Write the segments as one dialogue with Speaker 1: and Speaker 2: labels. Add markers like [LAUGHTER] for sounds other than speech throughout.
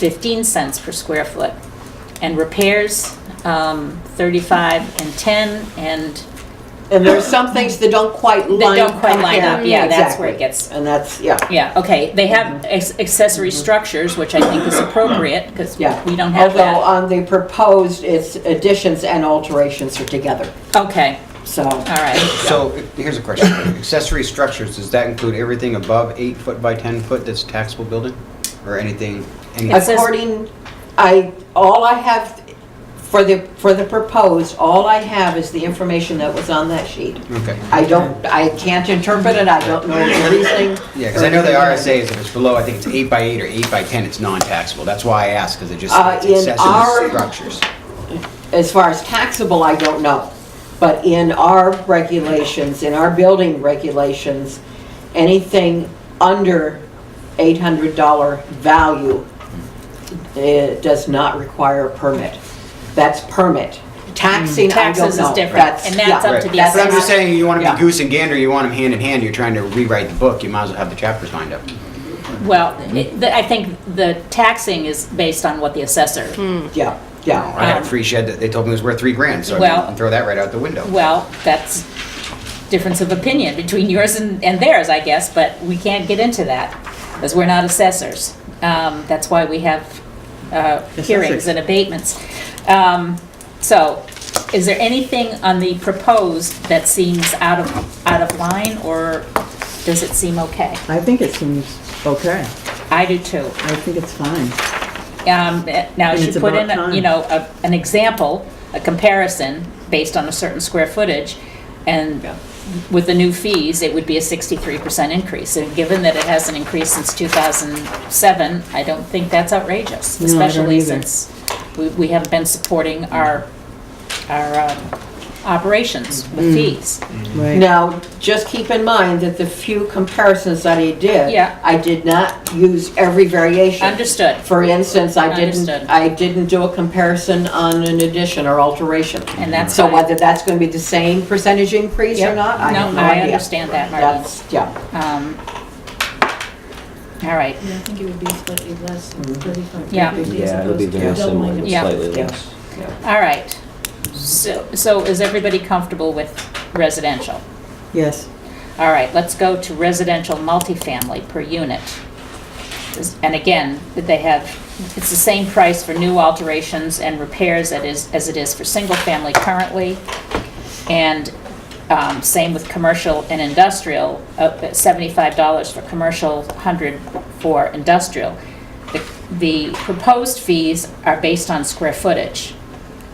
Speaker 1: 15 cents per square foot. And repairs, um, 35 and 10, and
Speaker 2: And there's some things that don't quite line up.
Speaker 1: don't quite line up. Yeah, that's where it
Speaker 2: exactly.
Speaker 1: gets-
Speaker 2: And that's, yeah,
Speaker 1: Yeah, okay, they have ex- accessory structures, which I think is appropriate, because
Speaker 2: yeah.
Speaker 1: we don't have
Speaker 2: Although
Speaker 1: that.
Speaker 2: on the proposed, it's additions and alterations are together,
Speaker 1: Okay,
Speaker 2: so.
Speaker 1: all right.
Speaker 3: So here's a question. Accessory structures, does that include everything above eight foot by 10 foot that's taxable building? Or anything? any-
Speaker 1: It says-
Speaker 2: According, I, all I have for the, for the proposed, all I have is the information that was on that sheet.
Speaker 3: Okay.
Speaker 2: I don't, I can't interpret it, I don't know the reasoning.
Speaker 3: Yeah, because I know the RSA is if it's below, I think it's eight by eight or eight by 10, it's non-taxable. That's why I asked, because it just,
Speaker 2: Uh,
Speaker 3: it's
Speaker 2: in our-
Speaker 3: accessory structures.
Speaker 2: As far as taxable, I don't know. But in our regulations, in our building regulations, anything under $800 value eh, does not require a permit. That's permit. Taxing, I don't know.
Speaker 1: Taxes is different, and that's
Speaker 2: yeah.
Speaker 1: up
Speaker 3: Right.
Speaker 1: to the
Speaker 2: That's
Speaker 3: But I'm just
Speaker 1: assessor.
Speaker 3: saying, you want to
Speaker 2: Yeah.
Speaker 3: be goose and gander, you want them hand in hand, you're trying to rewrite the book, you might as well have the chapters lined up.
Speaker 1: Well, it- the- I think the taxing is based on what the assessor,
Speaker 2: Yeah, yeah.
Speaker 3: I had
Speaker 1: Um,
Speaker 3: a free shed that they told me was worth three grand, so I mean,
Speaker 1: Well-
Speaker 3: you can throw that right out the window.
Speaker 1: well, that's difference of opinion between [LAUGHS] yours and and theirs, I guess, but we can't get into that, because we're not assessors. Um, That's why we have uh, hearings and abatements. Um, So, is there anything on the proposed that seems out of, out of line, or does it seem okay?
Speaker 4: I think it seems okay.
Speaker 1: I do too.
Speaker 4: I think it's fine.
Speaker 1: Um, Now,
Speaker 4: And
Speaker 1: if
Speaker 4: it's
Speaker 1: you put in,
Speaker 4: about
Speaker 1: a- you
Speaker 4: time.
Speaker 1: know, a- an example, a comparison based on a certain square footage, and with the new fees, it would be a 63% increase. And given that it hasn't increased since 2007, I don't think that's outrageous,
Speaker 4: No, I don't
Speaker 1: especially
Speaker 4: either.
Speaker 1: since we- we have been supporting our, our um, operations
Speaker 4: Mm.
Speaker 1: with fees.
Speaker 4: Right.
Speaker 2: Now, just keep in mind that the few comparisons that I did.
Speaker 1: Yeah.
Speaker 2: I did not use every variation.
Speaker 1: Understood.
Speaker 2: For instance, I didn't,
Speaker 1: Understood.
Speaker 2: I didn't do a comparison on an addition or alterration.
Speaker 1: And that's
Speaker 2: So
Speaker 1: fine.
Speaker 2: whether that's gonna be the same percentage increase or
Speaker 1: Yep.
Speaker 2: not, I have
Speaker 1: No,
Speaker 2: no
Speaker 1: I
Speaker 2: idea.
Speaker 1: understand that, Marlene.
Speaker 2: That's, yeah,
Speaker 1: Um, All right,
Speaker 5: Yeah, I think it would be slightly less than 35.
Speaker 1: Yeah.
Speaker 6: Mm-hmm. Yeah, it'll be very similar, but
Speaker 1: Yeah.
Speaker 6: slightly
Speaker 2: Yeah.
Speaker 6: less.
Speaker 1: all right. So, so is everybody comfortable with residential?
Speaker 4: Yes.
Speaker 1: All right, let's go to residential multifamily per unit. This- And again, they have, it's the same price for new alterations and repairs that is, as it is for single-family currently. And um, same with commercial and industrial, up at $75 for commercial, 100 for industrial. The- The proposed fees are based on square footage.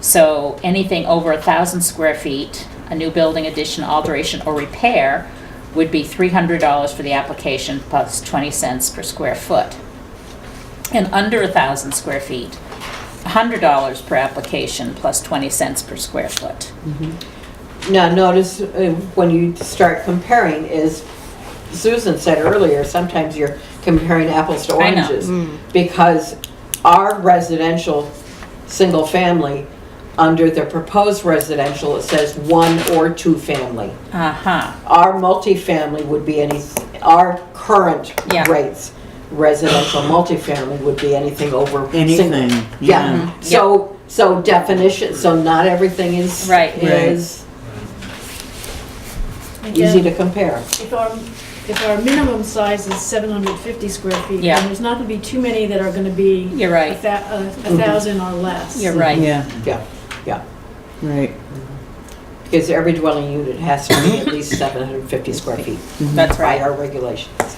Speaker 1: So anything over a thousand square feet, a new building addition, alteration, or repair would be three hundred dollars for the application plus twenty cents per square foot. And under a thousand square feet, hundred dollars per application plus twenty cents per square foot.
Speaker 2: now notice uh, when you start comparing is, Susan said earlier, sometimes you're comparing apples to
Speaker 1: I know.
Speaker 2: oranges. Because our residential, single family, under the proposed residential, it says one or two family.
Speaker 1: Uh-huh,
Speaker 2: our multifamily would be any, our current
Speaker 1: Yeah.
Speaker 2: rates, residential multifamily would be anything over. single-
Speaker 4: Anything, yeah.
Speaker 2: Yeah,
Speaker 1: Mm-hmm.
Speaker 2: so, so definition, so not everything is.
Speaker 1: Right.
Speaker 4: Right.
Speaker 2: Is easy to compare.
Speaker 5: If our, if our minimum size is 750 square feet,
Speaker 1: Yeah.
Speaker 5: then there's not going to be too many that are going to be.
Speaker 1: You're right.
Speaker 5: A thou- a-
Speaker 6: Mm-hmm.
Speaker 5: a thousand or less.
Speaker 4: Mm-hmm.
Speaker 1: you're right.
Speaker 4: Yeah,
Speaker 2: Yeah, yeah.
Speaker 4: right.
Speaker 2: Because every dwelling unit has to be at least 750 square feet
Speaker 1: That's
Speaker 2: by
Speaker 1: right.
Speaker 2: our regulations.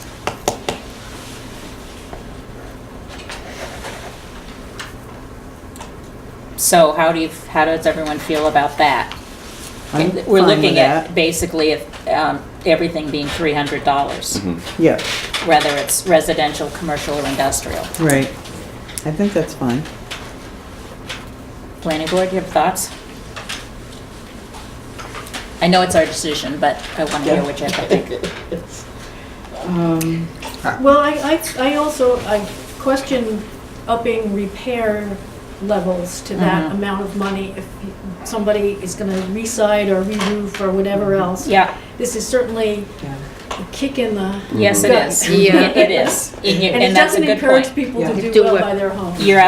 Speaker 1: So how do you, how does everyone feel about that?
Speaker 4: I'm
Speaker 1: We're
Speaker 4: fine with
Speaker 1: looking at
Speaker 4: that.
Speaker 1: basically if, um, everything being three hundred dollars,
Speaker 4: Yeah,
Speaker 1: whether it's residential, commercial, or industrial.
Speaker 4: right. I think that's fine.
Speaker 1: Planning board, you have thoughts? I know it's our decision, but I want to hear what you have to think.
Speaker 4: Um,
Speaker 5: Well, I, I, I also, I question upping repair levels to that
Speaker 1: Mhm.
Speaker 5: amount of money if somebody is going to re-side or re-roof or whatever else.
Speaker 1: Mm-hmm. Yeah,
Speaker 5: This is certainly
Speaker 2: Yeah.
Speaker 5: a kick in the,
Speaker 1: Yes, it
Speaker 5: Good.
Speaker 1: is.
Speaker 7: Yeah.
Speaker 1: It it is. And you-
Speaker 5: [LAUGHS] and it
Speaker 1: that's a
Speaker 5: doesn't
Speaker 1: good
Speaker 5: encourage
Speaker 1: point.
Speaker 5: people
Speaker 4: Yeah.
Speaker 5: to do
Speaker 7: Do
Speaker 5: well
Speaker 7: what-
Speaker 5: by their home.
Speaker 1: You're